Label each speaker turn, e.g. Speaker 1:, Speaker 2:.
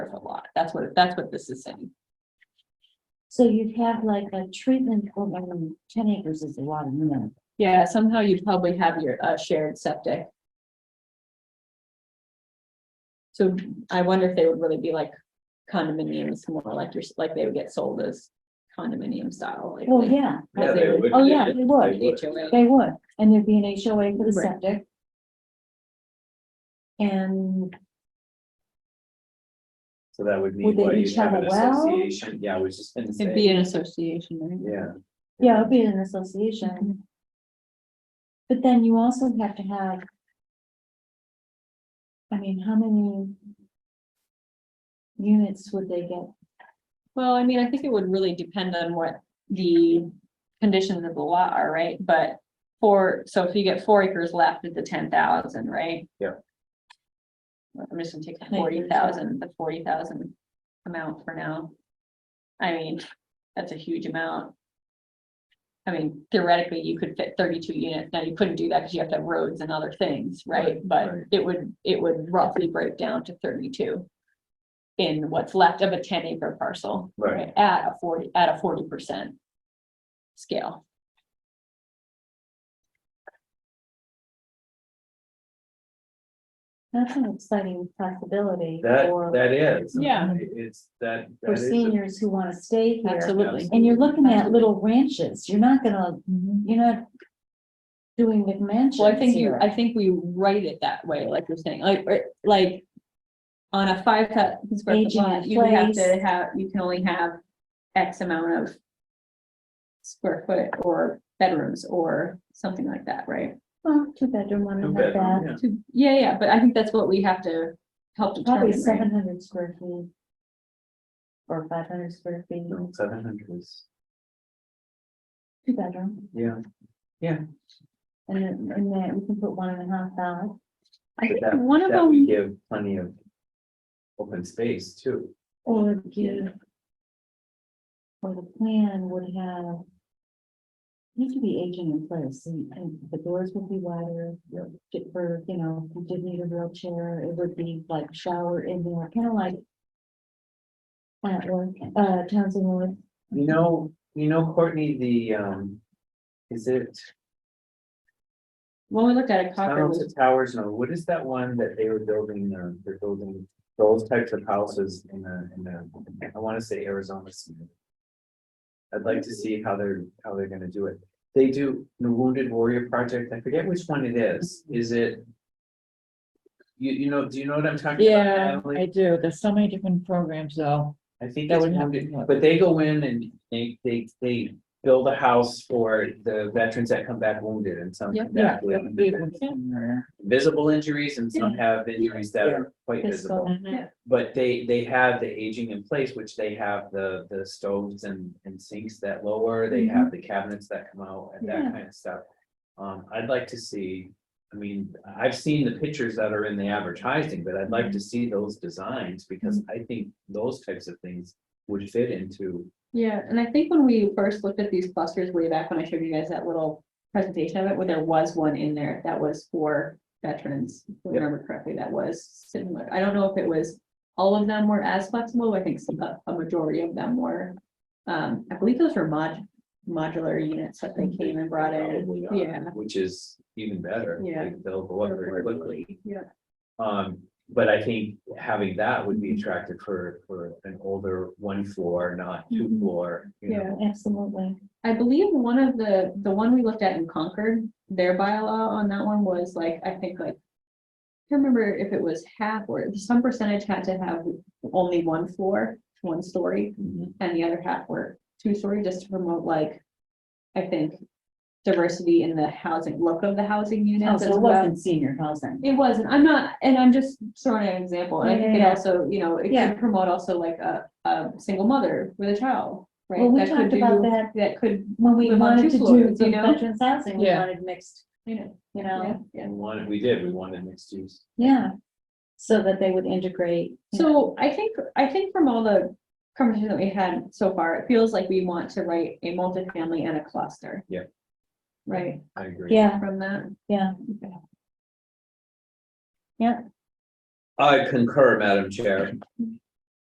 Speaker 1: That's what, that's what this is saying.
Speaker 2: So you'd have like a treatment program, ten acres is a lot of minimum.
Speaker 1: Yeah, somehow you'd probably have your, uh, shared septic. So I wonder if they would really be like condominiums, more like your, like they would get sold as condominium style. like
Speaker 2: Well,
Speaker 1: they-
Speaker 2: Oh, yeah,
Speaker 1: as they would
Speaker 2: oh, yeah, they would,
Speaker 1: HOA.
Speaker 2: they would, and there'd be an HOA for the
Speaker 1: Right.
Speaker 2: septic. And
Speaker 3: So that would
Speaker 2: Would
Speaker 3: mean,
Speaker 2: they
Speaker 3: what,
Speaker 2: each
Speaker 3: you have
Speaker 2: have
Speaker 3: an
Speaker 2: a well?
Speaker 3: association, yeah, I was just gonna
Speaker 1: It'd be
Speaker 3: say,
Speaker 1: an association, right?
Speaker 3: yeah.
Speaker 2: Yeah, it'd be an
Speaker 1: Mm-hmm.
Speaker 2: association, but then you also have to have. I mean, how many? Units would they get?
Speaker 1: Well, I mean, I think it would really depend on what the conditions of the lot are, right? But for, so if you get four acres left at the ten thousand, right?
Speaker 3: Yeah.
Speaker 1: I'm just gonna take the
Speaker 2: Acres, yeah.
Speaker 1: forty thousand, the forty thousand amount for now. I mean, that's a huge amount. I mean, theoretically, you could fit thirty-two units. Now, you couldn't do that because you have to have roads and other things, right? But
Speaker 3: right.
Speaker 1: it would, it would roughly break down to thirty-two in what's left of a ten acre parcel.
Speaker 3: Right.
Speaker 1: At a forty, at a forty percent scale.
Speaker 2: That's an exciting possibility
Speaker 3: That,
Speaker 2: for,
Speaker 3: that is.
Speaker 1: Yeah.
Speaker 3: It- It's that.
Speaker 2: for
Speaker 3: that is a-
Speaker 2: seniors who wanna stay here.
Speaker 1: Absolutely.
Speaker 2: And you're looking at little ranches, you're not gonna,
Speaker 1: Well,
Speaker 2: you're not doing McMansions.
Speaker 1: I think you,
Speaker 2: here.
Speaker 1: I think we write it that way, like you're saying, like, or, like. On a five thousand square foot
Speaker 2: Aging
Speaker 1: lot,
Speaker 2: in
Speaker 1: you would have
Speaker 2: place.
Speaker 1: to have, you can only have X amount of. Square foot or bedrooms or something like that, right?
Speaker 2: Well, two bedroom, one
Speaker 3: Two
Speaker 2: and a
Speaker 3: bedroom,
Speaker 2: bath,
Speaker 3: yeah.
Speaker 1: To- Yeah, yeah, but I think that's what we have to help determine,
Speaker 2: probably
Speaker 1: right?
Speaker 2: seven hundred square feet. Or five hundred square feet,
Speaker 3: No, Seven hundred is,
Speaker 2: two bedroom,
Speaker 3: yeah,
Speaker 2: and then, and then we can put one and a half out.
Speaker 1: I
Speaker 3: but
Speaker 1: think
Speaker 3: that,
Speaker 1: one of
Speaker 3: that would
Speaker 1: them,
Speaker 3: give plenty of open space too.
Speaker 2: Or you. Or the plan would have. Need to be aging in place, and, and the doors would be wider.
Speaker 3: Yep.
Speaker 2: ju- For, you know, if you did need a wheelchair, it would be like shower in there, kind of like. At work, uh, Townsend Wood,
Speaker 3: You know, you know, Courtney, the, um, is it
Speaker 1: when we looked at it, Cochran
Speaker 3: tunnel
Speaker 1: was
Speaker 3: to towers? No, what is that one that they were building, uh, they're building those types of houses in the, in the, I wanna say Arizona. somewhere. I'd like to see how they're, how they're gonna do it. They do the Wounded Warrior Project. I forget which one it is. Is it? You, you know, do you know what I'm talking about?
Speaker 4: Yeah,
Speaker 3: Natalie?
Speaker 4: I do. There's so many different programs though.
Speaker 3: I think
Speaker 4: That
Speaker 3: it's
Speaker 4: would have
Speaker 3: wounded,
Speaker 4: to be-
Speaker 3: but they go in and they, they, they build a house for the veterans that come back wounded and some come
Speaker 4: Yeah.
Speaker 3: back with visible injuries and some have injuries that are quite visible.
Speaker 2: Mm-hmm.
Speaker 3: But they, they have the aging in place, which they have the, the stoves and, and sinks that lower, they
Speaker 1: Mm-hmm.
Speaker 3: have the cabinets that come out and
Speaker 2: Yeah.
Speaker 3: that kind of stuff. Um, I'd like to see, I mean, I've seen the pictures that are in the advertising, but I'd
Speaker 1: Mm-hmm.
Speaker 3: like to see those designs because I think those types of things would fit into.
Speaker 1: Yeah, and I think when we first looked at these clusters way back when I showed you guys that little presentation of it, where there was one in there that was for veterans. If I
Speaker 3: Yep.
Speaker 1: remember correctly, that was similar. I don't know if it was, all of them were as flexible. I think some, a a majority of them were. Um, I believe those were mod, modular units that they came and brought in.
Speaker 3: Probably are,
Speaker 1: yeah.
Speaker 3: Which is even better.
Speaker 1: Yeah.
Speaker 3: Like, They'll go up very quickly.
Speaker 1: Yeah,
Speaker 3: Um, but I think having that would be attractive for, for an older one floor, not two
Speaker 1: Mhm.
Speaker 3: floor, you
Speaker 1: Yeah.
Speaker 3: know.
Speaker 2: absolutely,
Speaker 1: I believe one of the, the one we looked at in Concord, their bylaw on that one was like, I think like. I can't remember if it was half or some percentage had to have only one floor, one story,
Speaker 3: Mhm.
Speaker 1: and the other half were two story, just to promote like. I think diversity in the housing, look of the housing
Speaker 2: Oh,
Speaker 1: units
Speaker 2: so
Speaker 1: as
Speaker 2: it
Speaker 1: well.
Speaker 2: wasn't senior housing.
Speaker 1: It wasn't, I'm not, and I'm just throwing out an example, and I
Speaker 2: Yeah,
Speaker 1: think it
Speaker 2: yeah, yeah.
Speaker 1: also, you know, it
Speaker 2: Yeah.
Speaker 1: can promote also like a, a single mother with a child. right?
Speaker 2: Well, we
Speaker 1: that could
Speaker 2: talked about
Speaker 1: do-
Speaker 2: that
Speaker 1: That could
Speaker 2: when we
Speaker 1: Live on two
Speaker 2: wanted to do
Speaker 1: floors,
Speaker 2: the
Speaker 1: you know?
Speaker 2: veterans housing, we
Speaker 4: Yeah.
Speaker 2: wanted mixed,
Speaker 1: You know,
Speaker 2: you
Speaker 1: yeah,
Speaker 2: know,
Speaker 1: yeah.
Speaker 3: We wanted, we did, we wanted mixed use.
Speaker 2: yeah. So that they would integrate. you know.
Speaker 1: So I think, I think from all the conversations that we had so far, it feels like we want to write a multifamily and a cluster.
Speaker 3: Yeah.
Speaker 1: Right,
Speaker 3: I agree.
Speaker 2: Yeah,
Speaker 1: from that.
Speaker 2: yeah,
Speaker 3: I concur, Madam Chair.